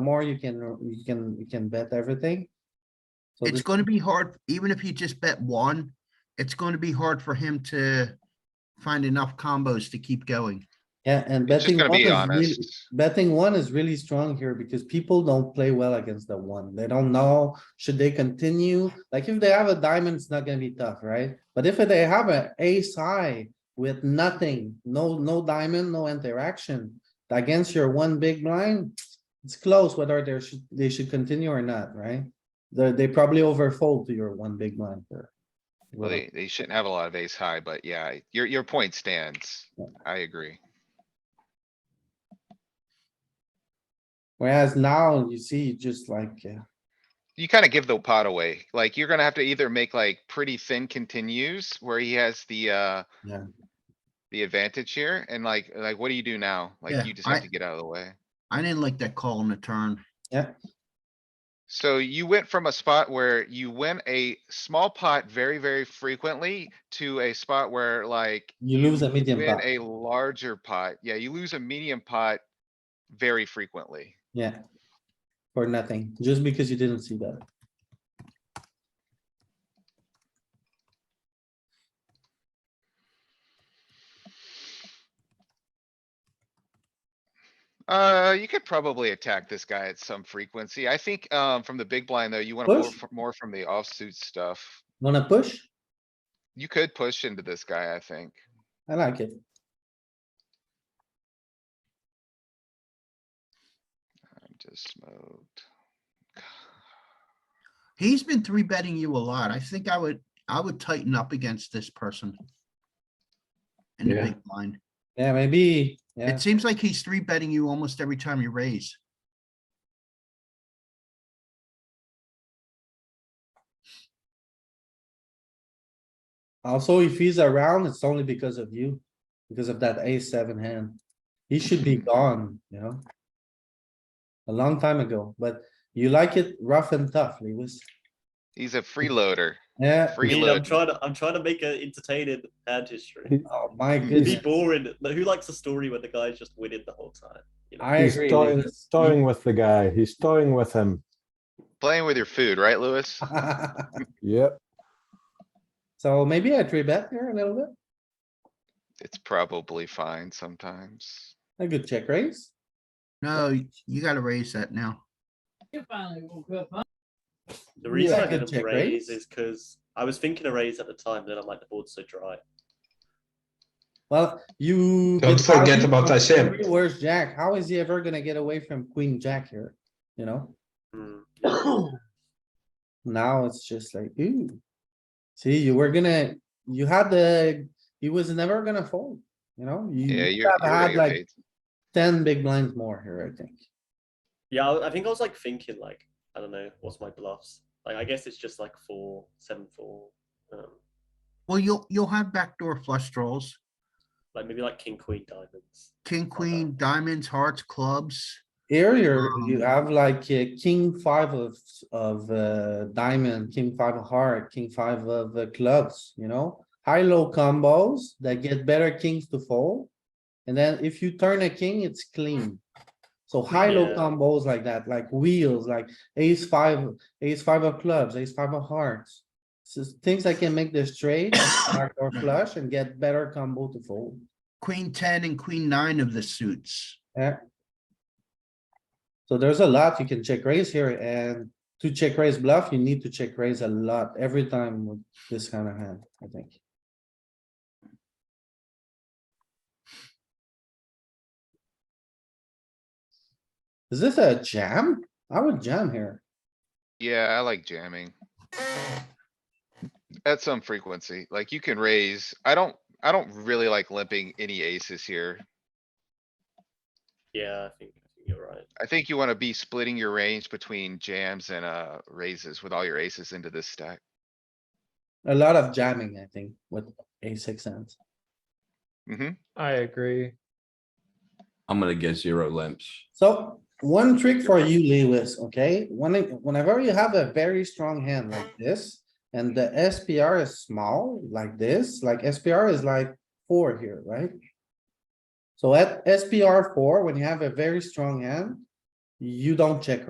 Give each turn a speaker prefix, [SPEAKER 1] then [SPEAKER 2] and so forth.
[SPEAKER 1] more you can, you can, you can bet everything. So
[SPEAKER 2] It's
[SPEAKER 1] this-
[SPEAKER 2] gonna be hard, even if he just bet one, it's gonna be hard for him to find enough combos to keep going.
[SPEAKER 1] Yeah, and
[SPEAKER 3] It's
[SPEAKER 1] betting
[SPEAKER 3] just gonna
[SPEAKER 1] one is
[SPEAKER 3] be
[SPEAKER 1] really,
[SPEAKER 3] honest.
[SPEAKER 1] betting one is really strong here because people don't play well against the one. They don't know, should they continue? Like if they have a diamond, it's not gonna be tough, right? But if they have an ace high with nothing, no, no diamond, no interaction against your one big blind, it's close whether they should, they should continue or not, right? They, they probably overfold to your one big blind here.
[SPEAKER 3] Well, they, they shouldn't have a lot of ace high, but yeah, your, your point stands. I agree.
[SPEAKER 1] Whereas now you see just like, uh,
[SPEAKER 3] You kinda give the pot away. Like, you're gonna have to either make like pretty thin continues where he has the, uh.
[SPEAKER 1] Yeah.
[SPEAKER 3] The advantage here and like, like, what do you do now?
[SPEAKER 2] Yeah,
[SPEAKER 3] Like, you just have
[SPEAKER 2] I-
[SPEAKER 3] to get out of the way.
[SPEAKER 2] I didn't like that call on the turn.
[SPEAKER 3] So you went from a spot where you win a small pot very, very frequently to a spot where like.
[SPEAKER 1] you lose a medium
[SPEAKER 3] Win
[SPEAKER 1] pot.
[SPEAKER 3] a larger pot. Yeah, you lose a medium pot very frequently.
[SPEAKER 1] Yeah. For nothing, just because you didn't see that.
[SPEAKER 3] Uh, you could probably attack this guy at some frequency. I think, um, from the big blind though, you wanna pull
[SPEAKER 1] Push?
[SPEAKER 3] f- more from the offsuit stuff.
[SPEAKER 1] Wanna push?
[SPEAKER 3] You could push into this guy, I think.
[SPEAKER 1] I like it.
[SPEAKER 3] I'm just smoked.
[SPEAKER 2] He's been three betting you a lot. I think I would, I would tighten up against this person. In the
[SPEAKER 4] Yeah.
[SPEAKER 2] big blind.
[SPEAKER 1] Yeah, maybe, yeah,
[SPEAKER 2] It seems like he's three betting you almost every time you raise.
[SPEAKER 1] also if he's around, it's only because of you, because of that ace seven hand. He should be gone, you know? A long time ago, but you like it rough and tough, Lewis.
[SPEAKER 3] He's a freeloader.
[SPEAKER 1] Yeah,
[SPEAKER 5] Dean, I'm
[SPEAKER 3] Freeload.
[SPEAKER 5] trying to I'm trying to make an entertaining hand history.
[SPEAKER 1] oh my
[SPEAKER 5] Be
[SPEAKER 1] goodness,
[SPEAKER 5] boring. Like, Who likes a story where the guy's just winning the whole time? You know?
[SPEAKER 1] I
[SPEAKER 4] He's
[SPEAKER 1] agree.
[SPEAKER 4] toying,
[SPEAKER 1] Lewis.
[SPEAKER 4] toying with the guy. He's toying with him.
[SPEAKER 3] Playing with your food, right, Louis?
[SPEAKER 1] Uh,
[SPEAKER 4] Yep.
[SPEAKER 1] So maybe I three bet here a little bit,
[SPEAKER 3] It's probably fine sometimes.
[SPEAKER 1] a good check raise.
[SPEAKER 2] No, y- you gotta raise that now.
[SPEAKER 5] the reason
[SPEAKER 1] Yeah,
[SPEAKER 5] I
[SPEAKER 1] I could
[SPEAKER 5] didn't
[SPEAKER 1] check raise.
[SPEAKER 5] raise is because I was thinking a raise at the time, but then I'm like the board's so dry.
[SPEAKER 1] Well, you.
[SPEAKER 6] Don't
[SPEAKER 1] but how
[SPEAKER 6] forget
[SPEAKER 1] you-
[SPEAKER 6] about ICM.
[SPEAKER 1] every worst jack? How is he ever gonna get away from queen jack here? You know,
[SPEAKER 5] Mm.
[SPEAKER 1] now it's just like, ooh. See, you were gonna, you had the, he was never gonna fold, you know? You
[SPEAKER 3] Yeah,
[SPEAKER 1] you
[SPEAKER 3] you're,
[SPEAKER 1] have
[SPEAKER 3] you're gonna
[SPEAKER 1] had
[SPEAKER 3] get
[SPEAKER 1] like
[SPEAKER 3] paid.
[SPEAKER 1] ten big blinds more here, I think.
[SPEAKER 5] Yeah, I I think I was like thinking like I don't know what's my bluffs. Like I guess it's just like four seven four, um,
[SPEAKER 2] Well, you'll, you'll have backdoor flush draws.
[SPEAKER 5] like maybe like king queen diamonds.
[SPEAKER 2] King, queen, diamonds, hearts, clubs.
[SPEAKER 1] Here, you're, you
[SPEAKER 2] Um,
[SPEAKER 1] have like a king five of, of uh, diamond, king five of heart, king five of uh, clubs, you know? High-low combos that get better kings to fold. And then if you turn a king, it's clean. So high-low
[SPEAKER 5] Yeah.
[SPEAKER 1] combos like that, like wheels, like ace five, ace five of clubs, ace five of hearts. So things that can make the straight, backdoor flush and get better combo to fold.
[SPEAKER 2] Queen ten and queen nine of the suits.
[SPEAKER 1] So there's a lot you can check raise here and to check raise bluff, you need to check raise a lot every time with this kind of hand, I think. Is this a jam? I would jam here.
[SPEAKER 3] Yeah, I like jamming. At some frequency, like you can raise, I don't, I don't really like limping any aces here.
[SPEAKER 5] Yeah, I think, I think you're right.
[SPEAKER 3] I think you wanna be splitting your range between jams and, uh, raises with all your aces into this stack.
[SPEAKER 1] A lot of jamming, I think, with a six hands.
[SPEAKER 3] hmm
[SPEAKER 7] I agree.
[SPEAKER 8] I'm gonna get zero limps.
[SPEAKER 1] So one trick for you, Lewis, okay? When, whenever you have a very strong hand like this and the SPR is small like this, like SPR is like four here, right? So at SPR four, when you have a very strong hand, you don't check